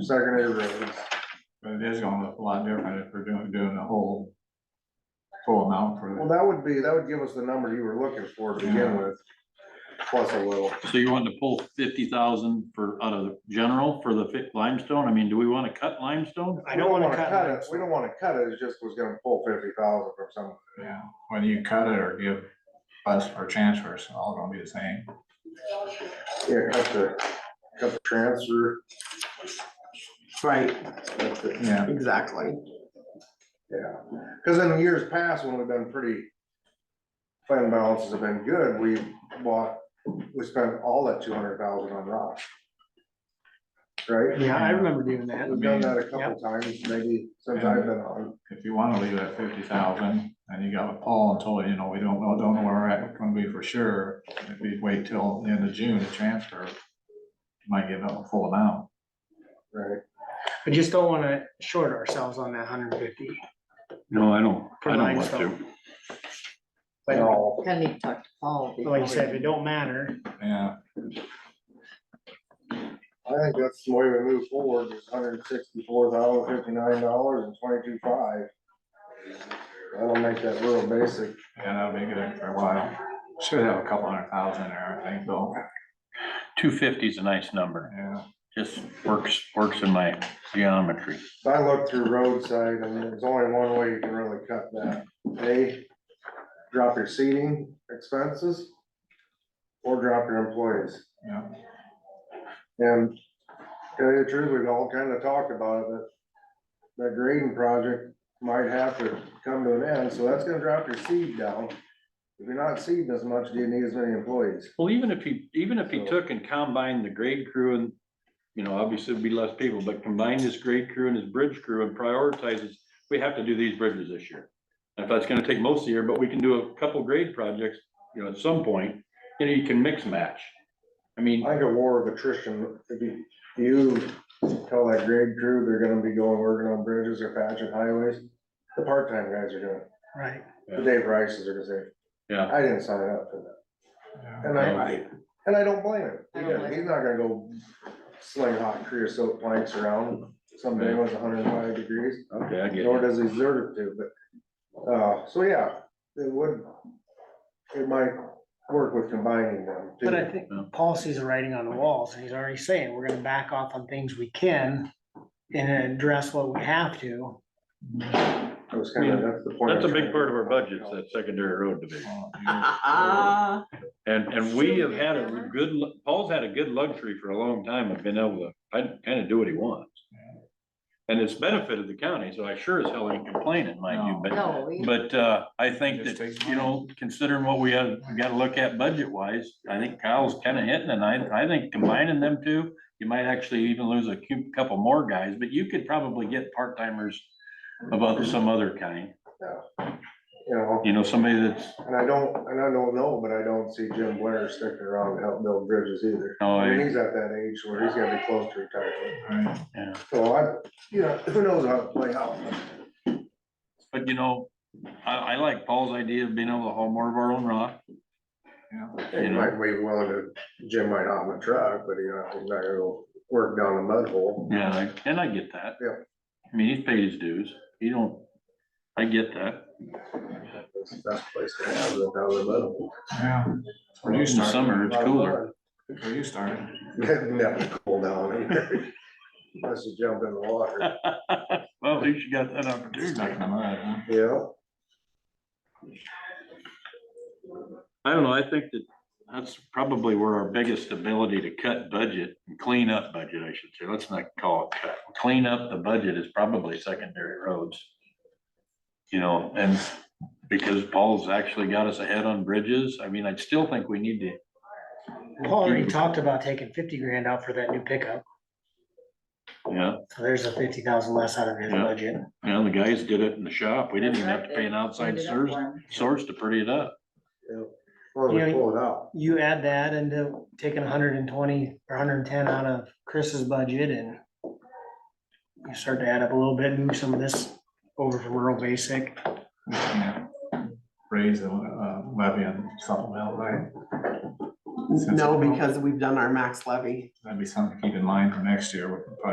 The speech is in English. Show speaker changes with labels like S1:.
S1: secondary roads, but it is gonna look a lot different if we're doing, doing the whole full amount for
S2: Well,
S1: it.
S2: that would be, that would give us the number you were looking for to begin with, plus a little.
S3: So you want to pull fifty thousand for, out of the general for the fi- limestone? I mean, do we want to cut limestone?
S4: I don't wanna cut
S2: it.
S4: it.
S2: We don't wanna cut it, it just was gonna pull fifty thousand from some,
S1: Yeah, whether you cut it or give us or transfer, it's all gonna be the same.
S2: yeah, cut the, cut the transfer,
S4: Right,
S2: that's it.
S1: Yeah,
S4: exactly.
S2: yeah. Cause in the years past, when we've been pretty, fund balances have been good, we bought, we spent all that two hundred thousand on rock. Right?
S4: Yeah, I remember doing that.
S2: We've done that a couple times, maybe since I've been on.
S1: if you wanna leave at fifty thousand, and you got with Paul and told, you know, we don't know, don't know where we're at, gonna be for sure. If we wait till the end of June to transfer, you might give up a full amount.
S2: Right,
S4: I just don't wanna short ourselves on that hundred and fifty.
S3: No, I don't,
S4: For
S3: I don't want to.
S4: limestone. But but
S2: No,
S5: Kind of need to talk to Paul.
S4: like you
S5: before
S4: said, if it don't matter,
S1: Yeah,
S2: I think that's the way we move forward, is hundred and sixty-four thousand fifty-nine dollars and twenty-two five. That'll make that real basic.
S1: yeah, that'll be good for a while. Should have a couple hundred thousand there, I think, though.
S3: Two fifty is a nice number.
S1: Yeah,
S3: Just works, works in my geometry.
S2: So I looked through roadside and there's only one way you can really cut that. A, drop your seating expenses or drop your employees.
S1: yeah.
S2: And tell you the truth, we've all kind of talked about it, that that grading project might have to come to an end, so that's gonna drop your seed down. If you're not seeding as much, do you need as many employees?
S3: Well, even if you, even if you took and combined the grade crew and, you know, obviously it'd be less people, but combine this grade crew and this bridge crew and prioritizes, we have to do these bridges this year. If that's gonna take most of the year, but we can do a couple grade projects, you know, at some point, you know, you can mix match. I mean,
S2: I think a war of attrition, if you, you tell that grade crew they're gonna be going working on bridges or patching highways, the part-time guys are doing, it.
S4: right,
S2: the Dave Rice's are gonna say,
S3: yeah,
S2: I didn't sign up for that.
S1: yeah.
S2: And I,
S3: Right.
S2: and I don't blame him,
S5: I don't blame
S2: he's not gonna go sling hot creosote planks around someday when it's hundred and five degrees.
S3: okay, I get
S2: nor
S3: it.
S2: does he deserve to, but, uh, so yeah, it would, it might work with combining them. too.
S4: but I think Paul sees the writing on the walls, and he's already saying, we're gonna back off on things we can. And address what we have to,
S2: That was kinda- that's the point.
S3: That's a
S2: I'm trying to-
S3: big part of our budget, that secondary road division.
S1: Well, you-
S5: Ah,
S3: And, and we have had a good, lu- Paul's had a good luxury for a long time of being able to, kind of do what he wants. And it's benefited the county, so I sure as hell ain't complaining, mind you, but,
S5: No, we,
S3: but, uh, I think
S1: Just takes
S3: that, you know, considering what we have, we gotta look at budget wise, I think Kyle's kind of hitting, and I, I think combining them two, you might actually even lose a cou- couple more guys, but you could probably get part-timers of other, some other kind,
S2: You know,
S3: you know, somebody that's,
S2: and I don't, and I don't know, but I don't see Jim Blair sticking around to help build bridges either.
S3: oh,
S2: I mean,
S3: I-
S2: he's at that age where he's gonna be close to retirement,
S1: Right.
S3: yeah.
S2: so I, you know, who knows how to play out.
S3: But you know, I, I like Paul's idea of being able to haul more of our own rock.
S2: He might be willing to, Jim might hop in a truck, but you know, he's not gonna go work down a mud hole.
S3: Yeah, I- and I get that.
S2: Yeah.
S3: I mean, he's paid his dues. He don't, I get that.
S2: That's the best place to have it, down the mud hole.
S1: Yeah. Where
S3: In
S1: you
S3: the
S1: started,
S3: summer, it's cooler.
S1: where you started.
S2: Never cool down here. Unless you jump in the water,
S3: Well, at least you got that opportunity.
S1: Stuck in the mud, huh?
S2: yeah.
S3: I don't know. I think that that's probably where our biggest ability to cut budget and clean up budget, I should say. Let's not call it cut. Clean up the budget is probably secondary roads. You know, and because Paul's actually got us ahead on bridges, I mean, I still think we need to
S4: Paul already talked about taking fifty grand out for that new pickup,
S3: Yeah,
S4: so there's a fifty thousand less out of his
S3: Yeah.
S4: budget.
S3: you know, the guys did it in the shop. We didn't even have to pay an outside
S5: Ended up
S3: source,
S5: one.
S3: source to pretty it up.
S2: yeah. Well, we
S4: Yeah.
S2: pull it out,
S4: you add that into taking hundred and twenty or hundred and ten out of Chris's budget and you start to add up a little bit, move some of this over from rural basic.
S1: We can't Raise the uh, levy on something else, right?
S6: No, because we've done our max levy.
S1: That'd be something to keep in mind for next year, with the